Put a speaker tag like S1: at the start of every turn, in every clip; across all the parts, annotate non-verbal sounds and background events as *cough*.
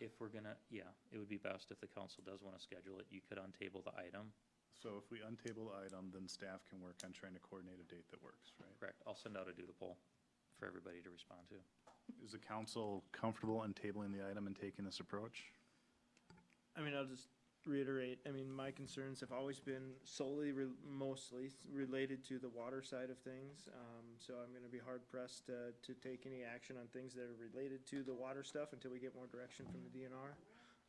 S1: if we're gonna, yeah, it would be best if the council does want to schedule it, you could untable the item.
S2: So if we untable the item, then staff can work on trying to coordinate a date that works, right?
S1: Correct. I'll send out a doodle poll for everybody to respond to.
S2: Is the council comfortable untabling the item and taking this approach?
S3: I mean, I'll just reiterate, I mean, my concerns have always been solely, re- mostly s- related to the water side of things. Um, so I'm gonna be hard pressed to, to take any action on things that are related to the water stuff until we get more direction from the DNR.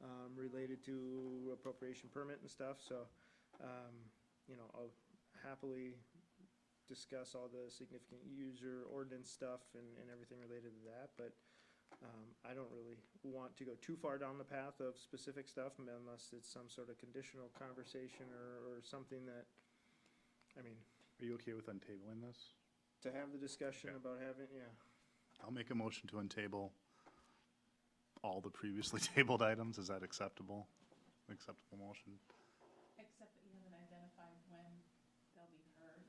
S3: Um, related to appropriation permit and stuff, so, um, you know, I'll happily discuss all the significant user ordinance stuff and, and everything related to that, but um, I don't really want to go too far down the path of specific stuff m- unless it's some sort of conditional conversation or, or something that, I mean,
S2: Are you okay with untabling this?
S3: to have the discussion
S2: Okay.
S3: about having, yeah.
S2: I'll make a motion to untable all the previously *laughs* tabled items. Is that acceptable? Acceptable motion?
S4: Except that you haven't identified when they'll be heard.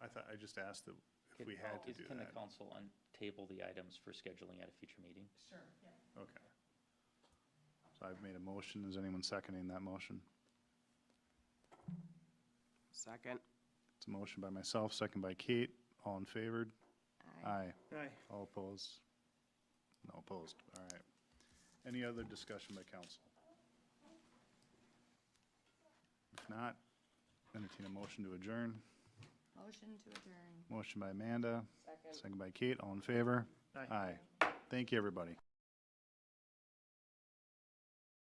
S2: I thought, I just asked that if
S1: Can- oh,
S2: we had to
S1: is-
S2: do
S1: Can the
S2: that.
S1: council untable the items for scheduling at a future meeting?
S4: Sure. Yeah.
S2: Okay. So I've made a motion. Is anyone seconding that motion?
S5: Second.
S2: It's a motion by myself, second by Kate. All in favor? Aye.
S3: Aye.
S2: All opposed? No opposed, all right. Any other discussion by council? If not, entertain a motion to adjourn.
S6: Motion to adjourn.
S2: Motion by Amanda,
S5: Second.
S2: second by Kate, all in favor?
S3: Aye.
S2: Aye. Thank you, everybody.